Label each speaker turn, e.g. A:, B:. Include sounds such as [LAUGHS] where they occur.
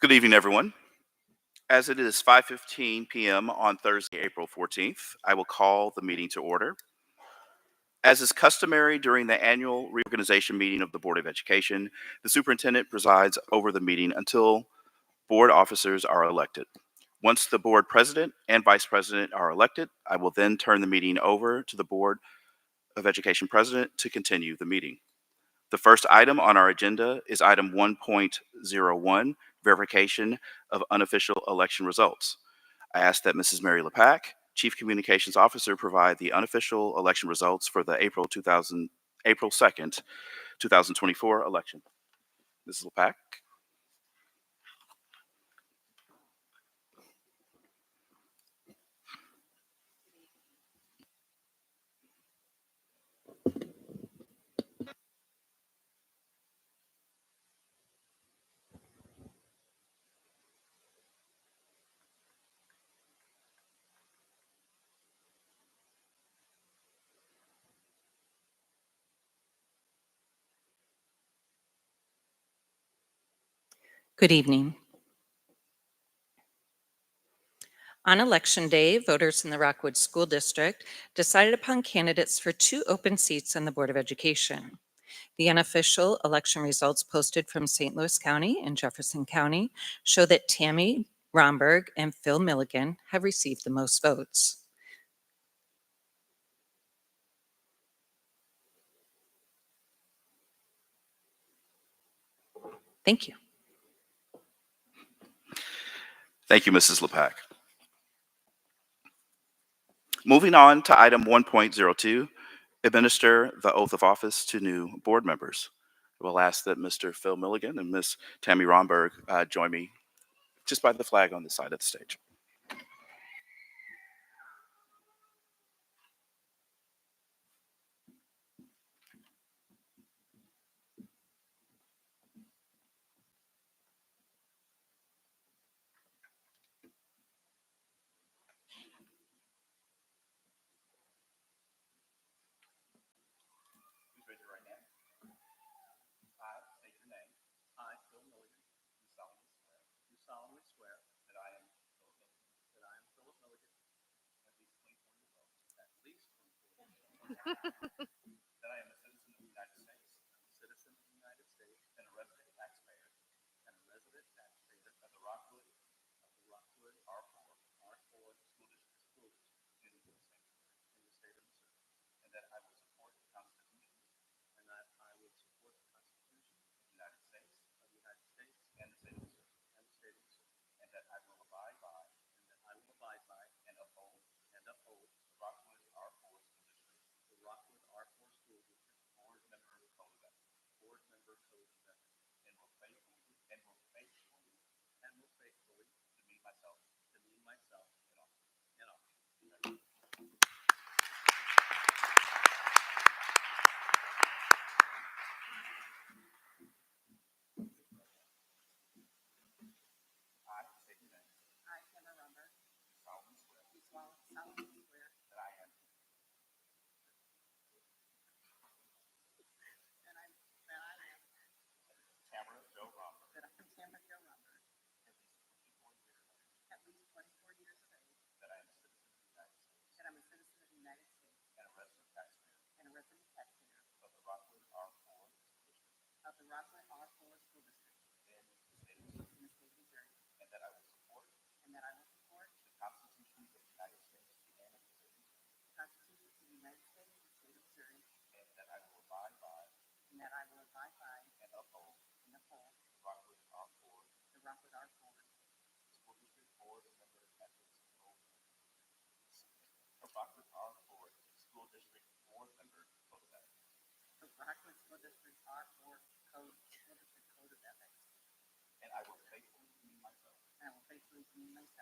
A: Good evening, everyone. As it is 5:15 p.m. on Thursday, April 14th, I will call the meeting to order. As is customary during the annual reorganization meeting of the Board of Education, the superintendent presides over the meeting until board officers are elected. Once the board president and vice president are elected, I will then turn the meeting over to the Board of Education president to continue the meeting. The first item on our agenda is item 1.01, verification of unofficial election results. I ask that Mrs. Mary lepak Chief Communications Officer, provide the unofficial election results for the April 2000, April 2nd, 2024 election. Mrs. lepak
B: Good evening. On Election Day, voters in the Rockwood School District decided upon candidates for two open seats on the Board of Education. The unofficial election results posted from St. Louis County and Jefferson County show that Tammy Romberg and Phil Milligan have received the most votes. Thank you.
A: Thank you, Mrs. lepak Moving on to item 1.02, administer the oath of office to new board members. I will ask that Mr. Phil Milligan and Ms. Tammy Romberg uh, join me just by the flag on the side of the stage. Please raise your right hand. I state your name. I, Phil Milligan. Do solemnly swear. Do solemnly swear. That I am Philip Milligan. That I am Philip Milligan. At least twenty-four years old. At least twenty-four years old. [LAUGHS] That I am a citizen of the United States. A citizen of the United States. And a resident taxpayer. And a resident taxpayer. Of the Rockwood. Of the Rockwood R four. R four. School District. School District. In the state of Missouri. And that I will support the Constitution. And that I will support the Constitution of the United States. Of the United States. And the state of Missouri. And the state of Missouri. And that I will abide by. And that I will abide by. And uphold. And uphold. the Rockwood R four school district. The Rockwood R four school district. Board member code of ethics. Board member code of ethics. And will faithfully. And will faithfully. And will faithfully. Demean myself. Demean myself. In office. In office. I state your name. I, Emma Rumber. Do solemnly swear. Do solemnly swear. That I am. That I, that I am. Tamara Jo Rumber. That I am Tamara Jo Rumber. At least twenty-four years of age. That I am a citizen of the United States. That I'm a citizen of the United States. And a resident taxpayer. And a resident taxpayer. Of the Rockwood R four. Of the Rockland R four school district. And the state of Missouri. And the state of Missouri. And that I will support. And that I will support. The constitutions of the United States. And of the state of Missouri. Constitutions of the United States and the state of Missouri. And that I will abide by. And that I will abide by. And uphold. And uphold. The Rockland R four. The Rockland R four. School district board of member ethics code. The Rockland R four. School district board member code of ethics. The Rockland School District R four code, school district code of ethics. And I will faithfully demean myself. And I will faithfully demean myself.